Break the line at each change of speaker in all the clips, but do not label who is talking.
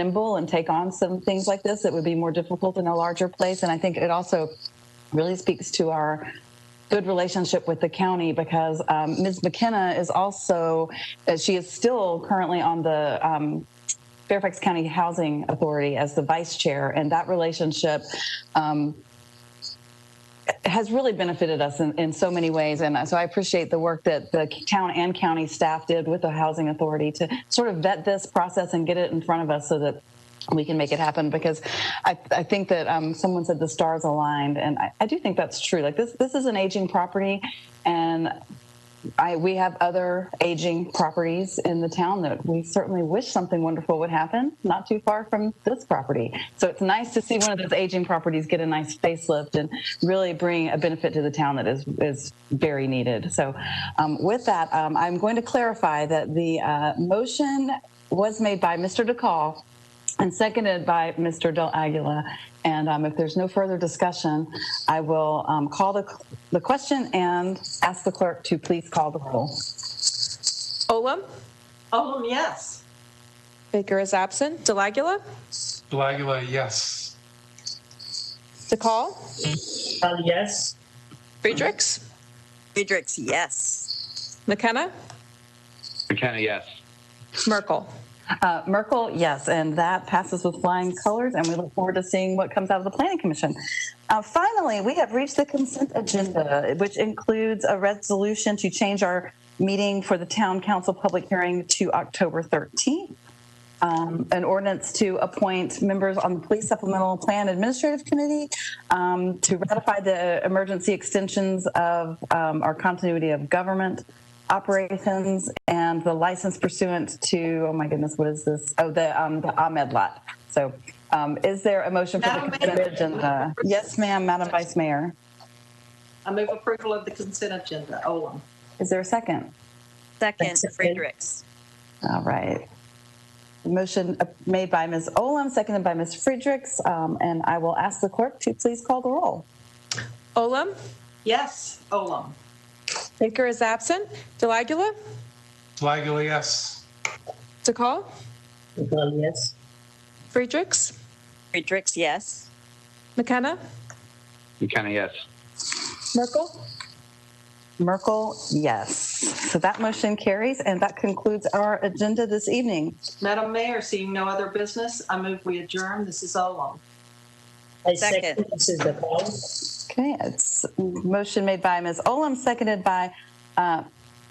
nimble and take on some things like this that would be more difficult in a larger place. And I think it also really speaks to our good relationship with the county because um, Ms. McKenna is also, uh, she is still currently on the um, Fairfax County Housing Authority as the vice chair, and that relationship um, has really benefited us in, in so many ways. And so I appreciate the work that the town and county staff did with the housing authority to sort of vet this process and get it in front of us so that we can make it happen because I, I think that um, someone said the stars aligned and I, I do think that's true like this this is an aging property and I we have other aging properties in the town that we certainly wish something wonderful would happen not too far from this property so it's nice to see one of those aging properties get a nice facelift and really bring a benefit to the town that is is very needed so um, with that um, I'm going to clarify that the uh, motion was made by Mr. DeCall and seconded by Mr. Del Aguila. And um, if there's no further discussion, I will um, call the, the question and ask the clerk to please call the roll.
Olem,
Olem, yes.
Baker is absent. Delagula,
Blagula, yes.
DeCall,
Bell, Uh, yes.
Friedrichs,
Friedrichs, yes.
McKenna,
McKenna, yes.
Merkel.
Uh, Merkel, yes, and that passes with flying colors, and we look forward to seeing what comes out of the Planning Commission. Uh, finally, we have reached the consent agenda, which includes a resolution to change our meeting for the Town Council public hearing to October 13th. um, an ordinance to appoint members on the Police Supplemental Plan Administrative Committee um, to ratify the emergency extensions of um, our continuity of government operations and the license pursuant to, oh my goodness, what is this? Oh, the, um, the Ahmed lot. So um, is there a motion for the
Madam
consent
Mayor.
agenda? Yes, ma'am, Madam Vice Mayor.
I move approval of the consent agenda. Olem.
Is there a second?
Second, Friedrichs.
All right. Motion uh, made by Ms. Olam, seconded by Ms. Friedrichs, um, and I will ask the clerk to please call the roll.
Olem,
Yes, Olem.
Baker is absent. Delagula,
Blagula, yes.
DeCall,
Bell, Uh, yes.
Friedrichs,
Friedrichs, yes.
McKenna,
McKenna, yes.
Merkel.
Merkel, yes. So that motion carries, and that concludes our agenda this evening.
Madam Mayor, seeing no other business, I move we adjourn. This is Olem.
I
Second.
second Mrs. DePaul.
Okay, it's motion made by Ms. Olam, seconded by uh,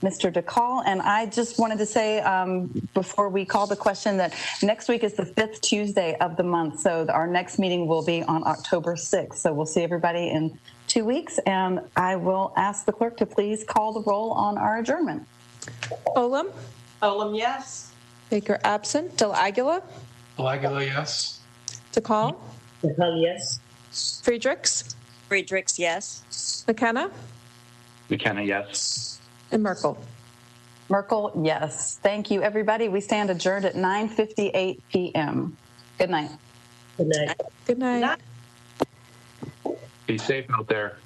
Mr. DeCall. And I just wanted to say um, before we call the question that next week is the fifth Tuesday of the month. So our next meeting will be on October 6th. So we'll see everybody in two weeks. And I will ask the clerk to please call the roll on our adjournment.
Olem,
Olem, yes.
Baker absent. Delagula,
Blagula, yes.
DeCall,
Uh,
DePaul, yes.
Friedrichs,
Friedrichs, yes.
McKenna,
McKenna, yes.
and Merkel.
Merkel, yes. Thank you, everybody. We stand adjourned at 9:58 p.m. Good night.
Good night.
Good night.
Night.
Be safe out there.